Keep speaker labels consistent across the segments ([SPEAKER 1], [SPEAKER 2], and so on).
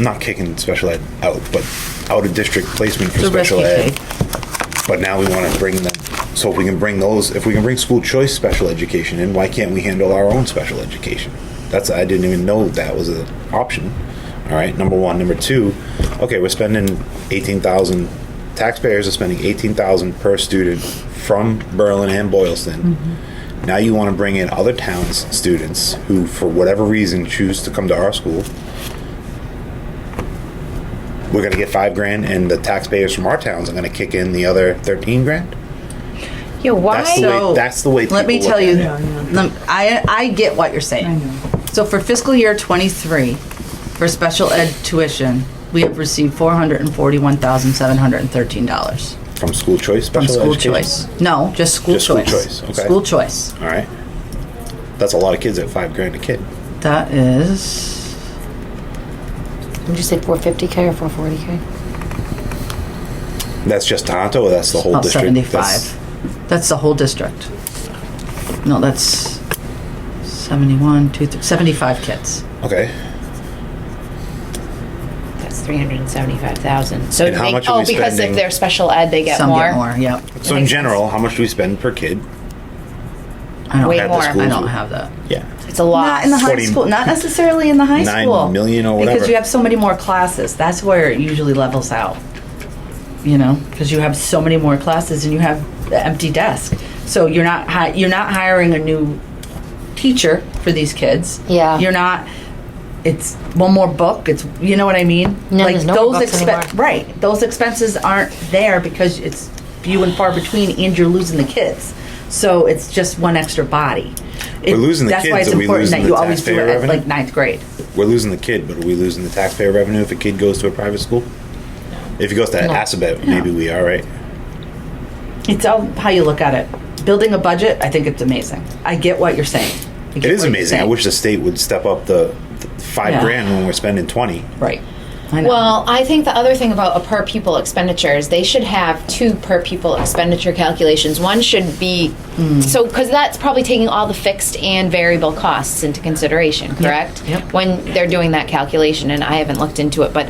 [SPEAKER 1] not kicking special ed out, but out of district placement for
[SPEAKER 2] The
[SPEAKER 1] special
[SPEAKER 2] rescue
[SPEAKER 1] ed. But now we want to bring them, so if we can bring those, if we can bring school choice special education in, why can't we handle our own special education? That's, I didn't even know that was an option. All right, number one. Number two, okay, we're spending eighteen thousand, taxpayers are spending eighteen thousand per student from Berlin and Boylston. Now you want to bring in other towns' students who, for whatever reason, choose to come to our school we're gonna get five grand and the taxpayers from our towns are gonna kick in the other thirteen grand?
[SPEAKER 2] Yeah, why?
[SPEAKER 1] That's the way, that's the way
[SPEAKER 2] Let me
[SPEAKER 1] people
[SPEAKER 2] tell
[SPEAKER 1] look
[SPEAKER 2] you,
[SPEAKER 1] at it.
[SPEAKER 2] lem- I, I get what you're saying. So for fiscal year twenty-three, for special ed tuition, we have received four hundred and forty-one thousand, seven hundred and thirteen dollars
[SPEAKER 1] From school choice,
[SPEAKER 2] from
[SPEAKER 1] special
[SPEAKER 2] school
[SPEAKER 1] education?
[SPEAKER 2] choice. No, just school
[SPEAKER 1] Just school
[SPEAKER 2] choice.
[SPEAKER 1] choice, okay.
[SPEAKER 2] School choice.
[SPEAKER 1] Alright. That's a lot of kids at five grand a kid.
[SPEAKER 2] That is,
[SPEAKER 3] Would you say 450K or 440K?
[SPEAKER 1] That's just Tohoto or that's the whole
[SPEAKER 2] about
[SPEAKER 1] district? That's-
[SPEAKER 2] seventy-five. That's the whole district. No, that's seventy-one, two, th- seventy-five kids.
[SPEAKER 1] Okay,
[SPEAKER 4] That's three hundred and seventy-five thousand. So
[SPEAKER 1] And how
[SPEAKER 4] they-
[SPEAKER 1] much are
[SPEAKER 4] oh,
[SPEAKER 1] we
[SPEAKER 4] because
[SPEAKER 1] spending?
[SPEAKER 4] if they're special ed, they get
[SPEAKER 2] Some
[SPEAKER 4] more.
[SPEAKER 2] get more, yep.
[SPEAKER 1] so in
[SPEAKER 4] makes
[SPEAKER 1] general, how much do we spend per kid?
[SPEAKER 2] I don't
[SPEAKER 4] Way
[SPEAKER 2] have-
[SPEAKER 4] more.
[SPEAKER 2] I don't have that.
[SPEAKER 1] Yeah,
[SPEAKER 4] It's a
[SPEAKER 2] Not
[SPEAKER 4] lot.
[SPEAKER 2] in the high
[SPEAKER 1] 20
[SPEAKER 2] school. Not necessarily in the high
[SPEAKER 1] nine
[SPEAKER 2] school.
[SPEAKER 1] million or whatever.
[SPEAKER 2] Because you have so many more classes. That's where it usually levels out. You know, because you have so many more classes and you have the empty desk. So you're not hi- you're not hiring a new teacher for these kids.
[SPEAKER 3] Yeah.
[SPEAKER 2] You're not. It's one more book. It's you know what I mean.
[SPEAKER 3] No, there's no more books anymore.
[SPEAKER 2] right? Those expenses aren't there because it's few and far between, and you're losing the kids. So it's just one extra body. It-
[SPEAKER 1] We're losing the
[SPEAKER 2] that's
[SPEAKER 1] kids,
[SPEAKER 2] why it's
[SPEAKER 1] are we
[SPEAKER 2] important
[SPEAKER 1] losing the
[SPEAKER 2] that you always do
[SPEAKER 1] taxpayer
[SPEAKER 2] it at
[SPEAKER 1] revenue?
[SPEAKER 2] like ninth grade.
[SPEAKER 1] We're losing the kid, but are we losing the taxpayer revenue if a kid goes to a private school? If he goes to Assabet, maybe we are, right?
[SPEAKER 2] It's all how you look at it. Building a budget, I think it's amazing. I get what you're saying. I get
[SPEAKER 1] It is
[SPEAKER 2] what you're
[SPEAKER 1] amazing. I
[SPEAKER 2] saying.
[SPEAKER 1] wish the state would step up the the five
[SPEAKER 2] Yeah.
[SPEAKER 1] grand when we're spending twenty.
[SPEAKER 2] Right. I know.
[SPEAKER 4] Well, I think the other thing about a per pupil expenditure is they should have two per pupil expenditure calculations. One should be
[SPEAKER 2] Hmm.
[SPEAKER 4] so because that's probably taking all the fixed and variable costs into consideration, correct?
[SPEAKER 2] Yep.
[SPEAKER 4] When they're doing that calculation, and I haven't looked into it, but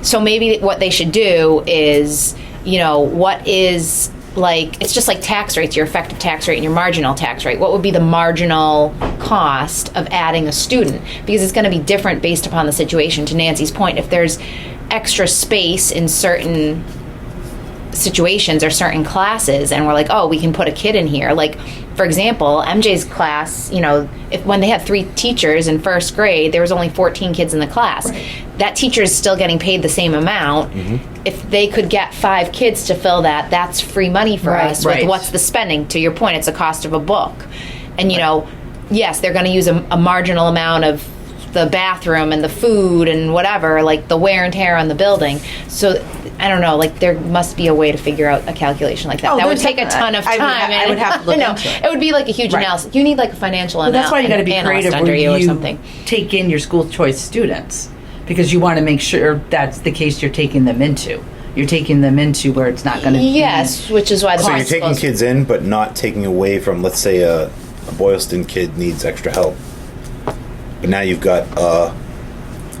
[SPEAKER 4] so maybe what they should do is, you know, what is like it's just like tax rates your effective tax rate and your marginal tax rate what would be the marginal cost of adding a student because it's going to be different based upon the situation to nancy's point if there's extra space in certain situations or certain classes and we're like oh we can put a kid in here like for example mj's class you know if, when they had three teachers in first grade there was only 14 kids in the class that teacher is still getting paid the same amount if they could get five kids to fill that that's free money for
[SPEAKER 3] Right.
[SPEAKER 4] us
[SPEAKER 2] Right.
[SPEAKER 4] with what's the spending to your point it's the cost of a book and you know yes they're going to use a, a marginal amount of the bathroom and the food and whatever like the wear and tear on the building so i don't know like there must be a way to figure out a calculation like that
[SPEAKER 2] Oh,
[SPEAKER 4] that would
[SPEAKER 2] there's
[SPEAKER 4] take a
[SPEAKER 2] definitely-
[SPEAKER 4] ton of
[SPEAKER 2] I would
[SPEAKER 4] time
[SPEAKER 2] ha- I
[SPEAKER 4] and-
[SPEAKER 2] would have to look
[SPEAKER 4] no,
[SPEAKER 2] into it.
[SPEAKER 4] would be like a huge
[SPEAKER 2] Right.
[SPEAKER 4] analysis you need like a financial
[SPEAKER 2] Well, that's why you
[SPEAKER 4] got to
[SPEAKER 2] be creative
[SPEAKER 4] under
[SPEAKER 2] where
[SPEAKER 4] you
[SPEAKER 2] you,
[SPEAKER 4] or something
[SPEAKER 2] take in your school choice students because you want to make sure that's the case you're taking them into. You're taking them into where it's not going to.
[SPEAKER 4] yes which is why the
[SPEAKER 1] So you're
[SPEAKER 4] cost
[SPEAKER 1] taking
[SPEAKER 4] goes-
[SPEAKER 1] kids in, but not taking away from, let's say, a, a Boylston kid needs extra help. But now you've got, uh,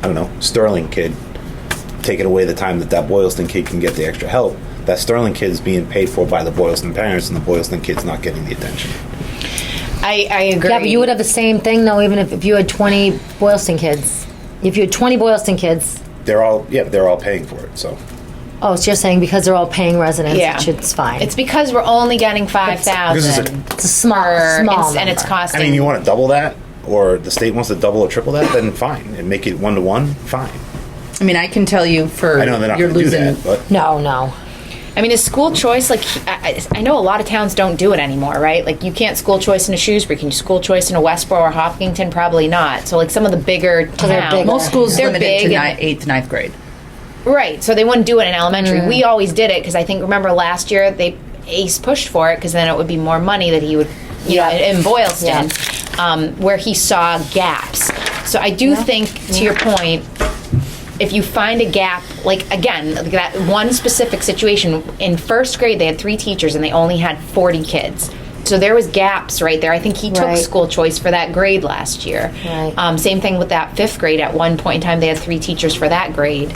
[SPEAKER 1] I don't know, Sterling kid taking away the time that that Boylston kid can get the extra help. That Sterling kid's being paid for by the Boylston parents, and the Boylston kid's not getting the attention.
[SPEAKER 4] I, I agree
[SPEAKER 3] Yeah, but you would have the same thing though, even if, if you had 20 Boylston kids. If you had 20 Boylston kids,
[SPEAKER 1] They're all, yeah, they're all paying for it. So
[SPEAKER 3] oh, so you're saying because they're all paying residents,
[SPEAKER 4] Yeah.
[SPEAKER 3] it should- it's fine.
[SPEAKER 4] it's because we're only getting
[SPEAKER 1] because it's
[SPEAKER 4] 5000
[SPEAKER 1] a-
[SPEAKER 3] It's a small,
[SPEAKER 4] per-
[SPEAKER 3] small
[SPEAKER 4] and it's
[SPEAKER 3] number.
[SPEAKER 4] costing
[SPEAKER 1] I mean, you want to double that, or the state wants to double or triple that, then fine, and make it one to one, fine.
[SPEAKER 2] I mean, I can tell you for
[SPEAKER 1] I know they're not
[SPEAKER 2] you're
[SPEAKER 1] going to do
[SPEAKER 2] losing
[SPEAKER 1] that, but
[SPEAKER 3] No, no.
[SPEAKER 4] I mean, is school choice like I, I I know a lot of towns don't do it anymore, right? Like you can't school choice in a Shrewsbury, can you school choice in a Westboro or Hopkinton? Probably not. So like some of the bigger
[SPEAKER 3] they're
[SPEAKER 4] towns,
[SPEAKER 3] bigger.
[SPEAKER 2] most schools
[SPEAKER 4] They're
[SPEAKER 2] limited
[SPEAKER 4] big
[SPEAKER 2] to
[SPEAKER 4] and-
[SPEAKER 2] ni- eighth, ninth grade.
[SPEAKER 4] right? So they wouldn't do it in elementary. We
[SPEAKER 3] Mm.
[SPEAKER 4] always did it because I think remember last year they Ace pushed for it because then it would be more money that he would, you know,
[SPEAKER 3] Yeah.
[SPEAKER 4] in, in Boylston,
[SPEAKER 3] Yeah.
[SPEAKER 4] um, where he saw gaps. So I do think, to your point, if you find a gap, like again, like that one specific situation in first grade, they had three teachers and they only had 40 kids. so there was gaps right there. I think he took
[SPEAKER 3] Right.
[SPEAKER 4] school choice for that grade last year.
[SPEAKER 3] Right.
[SPEAKER 4] Um, same thing with that fifth grade. At one point in time, they had three teachers for that grade.